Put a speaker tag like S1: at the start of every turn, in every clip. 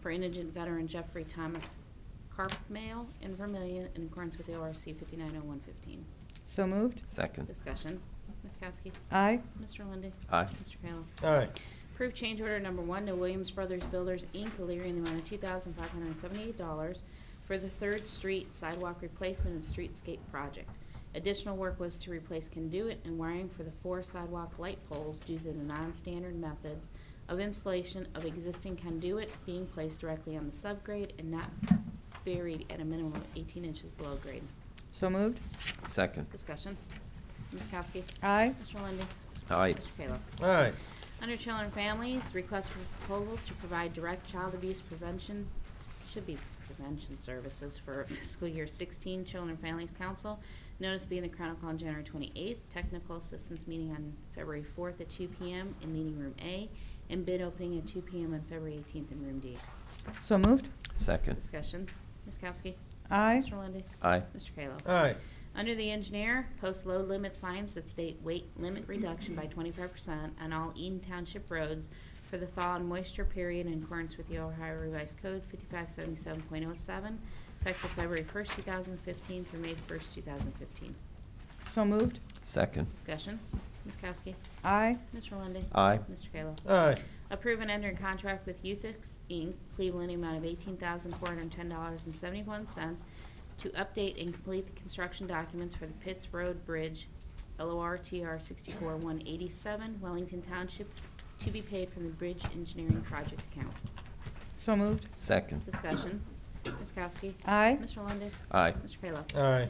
S1: for indigent veteran Jeffrey Thomas Carp Mail in Vermillion in accordance with the ORC 590115.
S2: So moved.
S3: Second.
S1: Discussion. Ms. Kowski.
S2: Aye.
S1: Mr. Lundey.
S3: Aye.
S1: Mr. Kayla.
S4: Aye.
S1: Approve change order number one to Williams Brothers Builders, Inc., Illyria, in the amount of two thousand five hundred and seventy-eight dollars for the Third Street sidewalk replacement and streetscape project. Additional work was to replace conduit and wiring for the four sidewalk light poles due to the non-standard methods of installation of existing conduit being placed directly on the subgrade and not buried at a minimum of eighteen inches below grade.
S2: So moved.
S3: Second.
S1: Discussion. Ms. Kowski.
S2: Aye.
S1: Mr. Lundey.
S3: Aye.
S1: Mr. Kayla.
S4: Aye.
S1: Under Children and Families, request for proposals to provide direct child abuse prevention, should be prevention services for fiscal year 16 Children and Families Council. Notice being the Chronicle on January 28th, technical assistance meeting on February 4th at 2 PM in Meeting Room A, and bid opening at 2 PM on February 18th in Room D.
S2: So moved.
S3: Second.
S1: Discussion, Ms. Kowski.
S2: Aye.
S1: Mr. Lundey.
S3: Aye.
S1: Mr. Kayla.
S4: Aye.
S1: Under the engineer, post load limit signs that state weight limit reduction by twenty-five percent on all Eaton Township roads for the thaw and moisture period in accordance with the Ohio Revised Code fifty-five seventy-seven point oh seven, effective February first, two thousand fifteen through May first, two thousand fifteen.
S2: So moved.
S3: Second.
S1: Discussion, Ms. Kowski,
S2: Aye.
S1: Mr. Lundey.
S3: Aye.
S1: Mr. Kayla.
S4: Aye.
S1: Approve and enter in contract with Youthix Inc., Cleveland, in the amount of eighteen thousand four hundred and ten dollars and seventy-one cents to update and complete the construction documents for the Pitts Road Bridge, LORTR sixty-four one eighty-seven, Wellington Township, to be paid from the Bridge Engineering Project account.
S2: So moved.
S3: Second.
S1: Discussion. Ms. Kowski.
S2: Aye.
S1: Mr. Lundey.
S3: Aye.
S1: Mr. Kayla.
S4: Aye.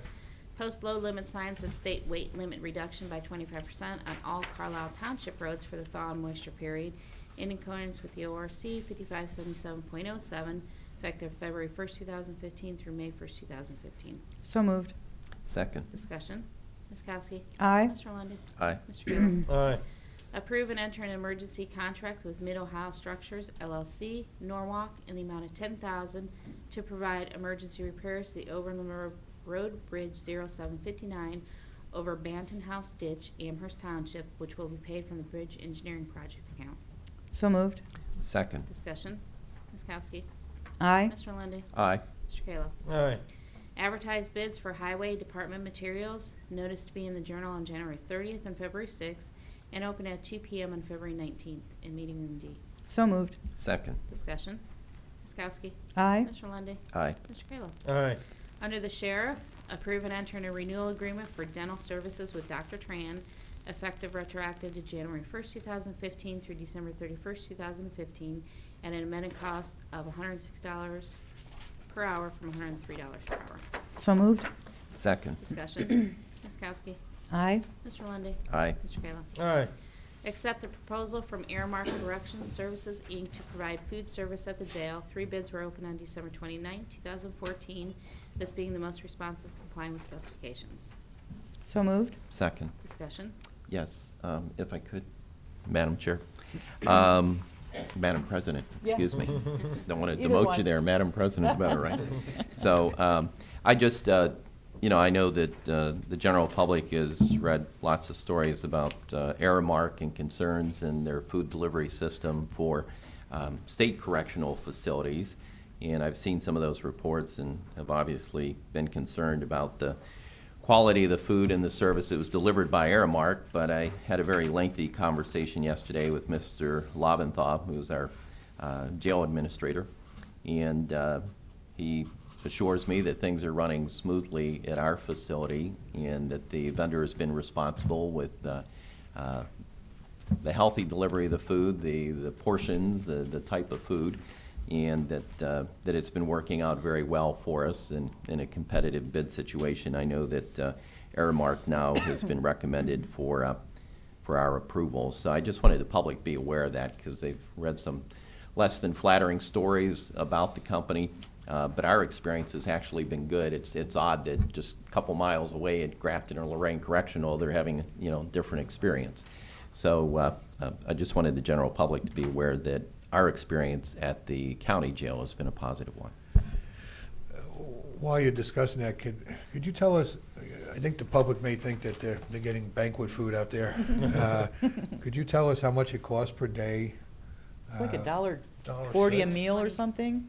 S1: Post low limit signs that state weight limit reduction by twenty-five percent on all Carlisle Township roads for the thaw and moisture period in accordance with the ORC fifty-five seventy-seven point oh seven, effective February first, two thousand fifteen through May first, two thousand fifteen.
S2: So moved.
S3: Second.
S1: Discussion. Ms. Kowski.
S2: Aye.
S1: Mr. Lundey.
S3: Aye.
S1: Mr. Kayla.
S4: Aye.
S1: Approve and enter an emergency contract with Mid-Ohio Structures LLC, Norwalk, in the amount of ten thousand to provide emergency repairs to the Overland Ro- Road Bridge 0759 over Banton House Ditch, Amherst Township, which will be paid from the Bridge Engineering Project account.
S2: So moved.
S3: Second.
S1: Discussion. Ms. Kowski.
S2: Aye.
S1: Mr. Lundey.
S3: Aye.
S1: Mr. Kayla.
S4: Aye.
S1: Advertise bids for highway department materials, notice to be in the Journal on January 30th and February 6th, and open at 2 PM on February 19th in Meeting Room D.
S2: So moved.
S3: Second.
S1: Discussion. Ms. Kowski.
S2: Aye.
S1: Mr. Lundey.
S3: Aye.
S1: Mr. Kayla.
S4: Aye.
S1: Under the Sheriff, approve and enter in a renewal agreement for dental services with Dr. Tran, effective retroactive to January 1st, 2015 through December 31st, 2015, at an amended cost of $106 per hour from $103 per hour.
S2: So moved.
S3: Second.
S1: Discussion. Ms. Kowski.
S2: Aye.
S1: Mr. Lundey.
S3: Aye.
S1: Mr. Kayla.
S4: Aye.
S1: Accept the proposal from Airmark Corrections Services, Inc. to provide food service at the jail. Three bids were opened on December 29, 2014, this being the most responsive complying with specifications.
S2: So moved.
S3: Second.
S1: Discussion.
S3: Yes, um, if I could, Madam Chair. Um, Madam President, excuse me. Don't want to
S2: Either
S3: demote
S2: one.
S3: you there. Madam President's better, right? So um, I just, uh, you know, I know that uh, the general public has read lots of stories about uh, Aramark and concerns in their food delivery system for um, state correctional facilities. And I've seen some of those reports and have obviously been concerned about the quality of the food and the service. It was delivered by Aramark, but I had a very lengthy conversation yesterday with Mr. Lobenthal, who's our uh, jail administrator, and uh, he assures me that things are running smoothly at our facility and that the vendor has been responsible with uh, uh, the healthy delivery of the food, the, the portions, the, the type of food, and that, uh, that it's been working out very well for us in, in a competitive bid situation. I know that uh, Aramark now has been recommended for, uh, for our approval. So I just wanted the public to be aware of that because they've read some less than flattering stories about the company. Uh, but our experience has actually been good. It's, it's odd that just a couple miles away at Grafton or Lorraine Correctional, they're having, you know, different experience. So uh, uh, I just wanted the general public to be aware that our experience at the county jail has been a positive one.
S5: While you're discussing that, could, could you tell us, I think the public may think that they're, they're getting banquet food out there. Uh, Could you tell us how much it costs per day
S2: It's like a
S5: Uh,
S2: dollar
S5: dollar
S2: forty a
S5: six.
S2: meal or something.